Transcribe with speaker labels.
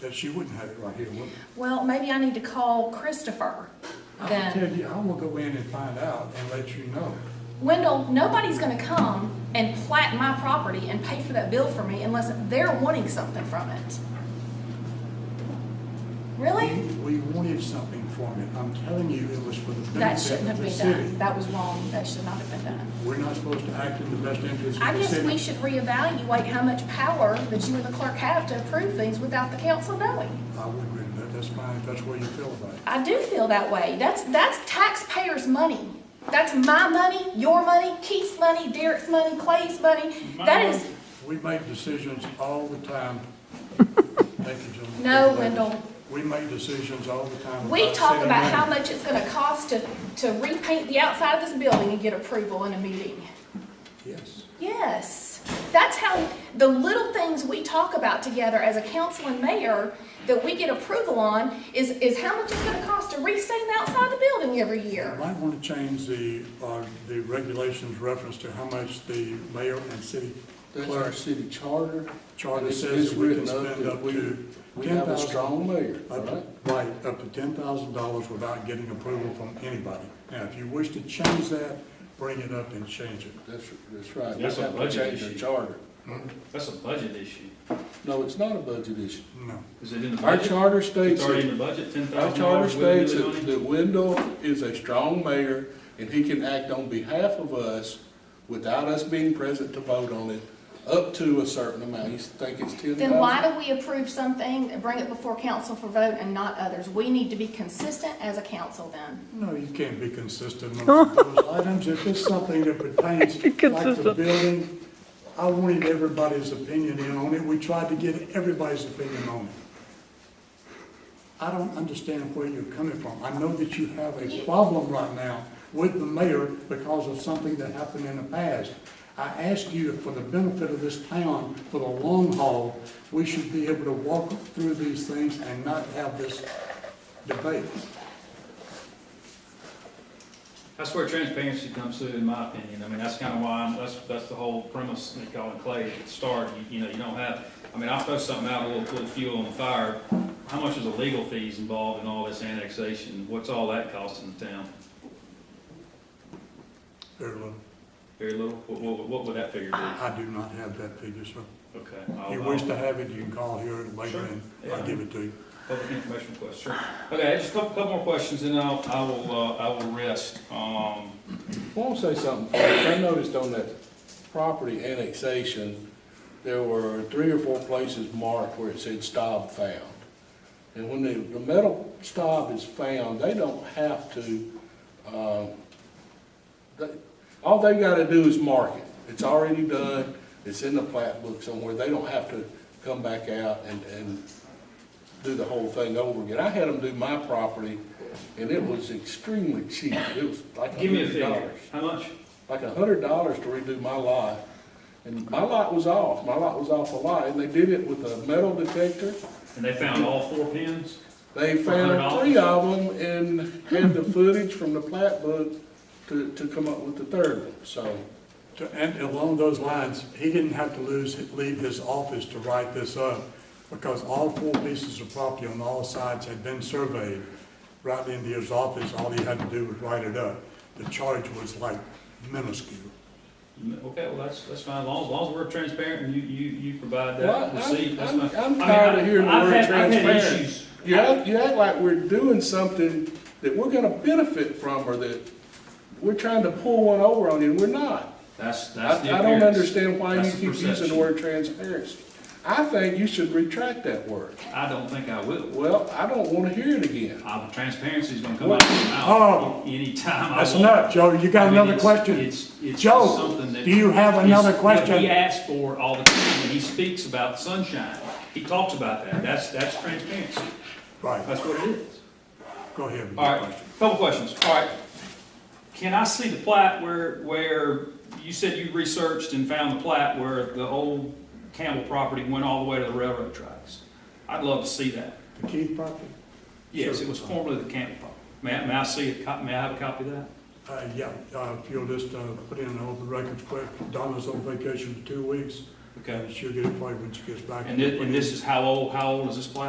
Speaker 1: that she wouldn't have it right here, wouldn't it?
Speaker 2: Well, maybe I need to call Christopher
Speaker 1: I tell
Speaker 2: then.
Speaker 1: you, I'm gonna go in and find out and let you know.
Speaker 2: Wendell, nobody's gonna come and plat my property and pay for that bill for me unless they're wanting something from it. Really?
Speaker 1: We we wanted something from it. I'm telling you, it was for the
Speaker 2: That
Speaker 1: benefit
Speaker 2: shouldn't
Speaker 1: of
Speaker 2: have
Speaker 1: the
Speaker 2: been
Speaker 1: city.
Speaker 2: done. That was wrong. That should not have been done.
Speaker 1: We're not supposed to act in the best interest
Speaker 2: I
Speaker 1: of the
Speaker 2: guess we
Speaker 1: city.
Speaker 2: should reevaluate how much power that you and the clerk have to approve things without the council knowing.
Speaker 1: I would agree with that. That's fine, if that's the way you feel about it.
Speaker 2: I do feel that way. That's, that's taxpayers' money. That's my money, your money, Keith's money, Derek's money, Clay's money. That is,
Speaker 1: We make decisions all the time. Thank you, gentlemen.
Speaker 2: No, Wendell.
Speaker 1: We make decisions all the time.
Speaker 2: we
Speaker 1: without
Speaker 2: talk
Speaker 1: city
Speaker 2: about
Speaker 1: money.
Speaker 2: how much it's gonna cost to, to repaint the outside of this building and get approval in a meeting.
Speaker 1: Yes.
Speaker 2: Yes. That's how the little things we talk about together as a council and mayor that we get approval on is, is how much it's gonna cost to restain the outside of the building every
Speaker 1: You
Speaker 2: year.
Speaker 1: Might want to change the, uh, the regulations reference to how much the mayor and city
Speaker 3: That's our
Speaker 1: clerk
Speaker 3: city charter.
Speaker 1: Charter
Speaker 3: And it's-
Speaker 1: says
Speaker 3: it's
Speaker 1: we can
Speaker 3: written
Speaker 1: spend
Speaker 3: that
Speaker 1: up
Speaker 3: we-
Speaker 1: to
Speaker 3: We have a
Speaker 1: 10,000.
Speaker 3: strong mayor, all
Speaker 1: Up to,
Speaker 3: right?
Speaker 1: right, up to ten thousand dollars without getting approval from anybody. Now, if you wish to change that, bring it up and change it.
Speaker 3: That's, that's right. We
Speaker 4: That's a
Speaker 3: have to
Speaker 4: budget
Speaker 3: change our
Speaker 4: issue.
Speaker 3: charter.
Speaker 4: That's a budget issue.
Speaker 3: No, it's not a budget issue.
Speaker 1: No.
Speaker 4: Is it in the
Speaker 3: Our
Speaker 4: budget?
Speaker 3: charter states,
Speaker 4: It's already in
Speaker 3: that-
Speaker 4: the budget, ten
Speaker 3: our
Speaker 4: thousand
Speaker 3: charter
Speaker 4: dollars.
Speaker 3: states that that Wendell is a strong mayor and he can act on behalf of us without us being present to vote on it up to a certain amount. You think it's ten thousand?
Speaker 2: Then why do we approve something and bring it before council for vote and not others? We need to be consistent as a council then.
Speaker 1: No, you can't be consistent on those items. If it's something that pertains, like the
Speaker 5: Consistent.
Speaker 1: building, I wanted everybody's opinion in on it. We tried to get everybody's opinion on it. I don't understand where you're coming from. I know that you have a problem right now with the mayor because of something that happened in the past. I ask you, for the benefit of this town, for the long haul, we should be able to walk through these things and not have this debate.
Speaker 4: That's where transparency comes through, in my opinion. I mean, that's kind of why, I'm- that's, that's the whole premise, that y'all and Clay, at the start, you, you know, you don't have, I mean, I'll throw something out, a little, little fuel on the fire. How much is the legal fees involved in all this annexation? What's all that costing the town?
Speaker 1: Very little.
Speaker 4: Very little. What, what, what would that figure be?
Speaker 1: I do not have that figure, sir.
Speaker 4: Okay.
Speaker 1: If
Speaker 4: I'll-
Speaker 1: you
Speaker 4: I'll-
Speaker 1: wish to have it, you can call here later and I'll
Speaker 4: Oh, Yeah.
Speaker 1: give it to you.
Speaker 4: Public information request, sure. Okay, just a couple, couple more questions, and I'll, I will, uh, I will rest. Um,
Speaker 3: I want to say something. first. I noticed on that property annexation, there were three or four places marked where it said stop found. And when the, the metal stop is found, they don't have to, um, they, all they gotta do is mark it. It's already done. It's in the plat book somewhere. They don't have to come back out and, and do the whole thing over again. I had them do my property and it was extremely cheap. It was like
Speaker 4: give me a
Speaker 3: hundred
Speaker 4: figure.
Speaker 3: dollars
Speaker 4: How much?
Speaker 3: like a hundred dollars to redo my lot. And my lot was off, my lot was off a lot, and they did it with a metal detector.
Speaker 4: And they found all four pins?
Speaker 3: They found
Speaker 4: $100?
Speaker 3: three of them and had the footage from the plat book to, to come up with the third one, so.
Speaker 1: To- And along those lines, he didn't have to lose, leave his office to write this up because all four pieces of property on all sides had been surveyed. Right into his office, all he had to do was write it up. The charge was like minuscule.
Speaker 4: Okay, well, that's, that's fine, as long as, as long as we're transparent and you, you, you provide
Speaker 3: Well,
Speaker 4: that
Speaker 3: I'm-
Speaker 4: receipt, that's
Speaker 3: I'm-
Speaker 4: fine.
Speaker 3: I'm
Speaker 4: I mean,
Speaker 3: tired of
Speaker 4: I-
Speaker 3: hearing the
Speaker 4: I've
Speaker 3: word
Speaker 4: had- I've had
Speaker 3: transparent.
Speaker 4: issues.
Speaker 3: You act, you act like we're doing something that we're gonna benefit from or that we're trying to pull one over on you, and we're not.
Speaker 4: That's,
Speaker 3: I,
Speaker 4: that's the
Speaker 3: I don't
Speaker 4: appearance.
Speaker 3: understand why you
Speaker 4: That's the
Speaker 3: keep using the
Speaker 4: perception.
Speaker 3: word transparency. I think you should retract that word.
Speaker 4: I don't think I will.
Speaker 3: Well, I don't want to hear it again.
Speaker 4: Uh, transparency's gonna come out of my
Speaker 1: Oh.
Speaker 4: mouth anytime I want.
Speaker 1: That's enough, Joe. You got
Speaker 4: I mean,
Speaker 1: another
Speaker 4: it's-
Speaker 1: question?
Speaker 4: It's, it's
Speaker 1: Joe,
Speaker 4: just something that.
Speaker 1: do you have
Speaker 4: is
Speaker 1: another
Speaker 4: What
Speaker 1: question?
Speaker 4: he asks for all the time, when he speaks about sunshine, he talks about that, that's, that's transparency,
Speaker 1: Right,
Speaker 4: that's what it is.
Speaker 1: go ahead. with your
Speaker 4: All right,
Speaker 1: question.
Speaker 4: couple questions, all right. Can I see the plat where, where, you said you researched and found the plat where the old Campbell property went all the way to the railroad tracks? I'd love to see that.
Speaker 1: The Keith property?
Speaker 4: Yes,
Speaker 1: Sure.
Speaker 4: it was formerly the Campbell property. May I, may I see a cop, may I have a copy of that?
Speaker 1: Uh, yeah, uh, if you'll just, uh, put in an open records quick. Donna's on vacation for two weeks.
Speaker 4: Okay.
Speaker 1: She'll get it probably when she gets back.
Speaker 4: And this, and this is how old, how old is this plat?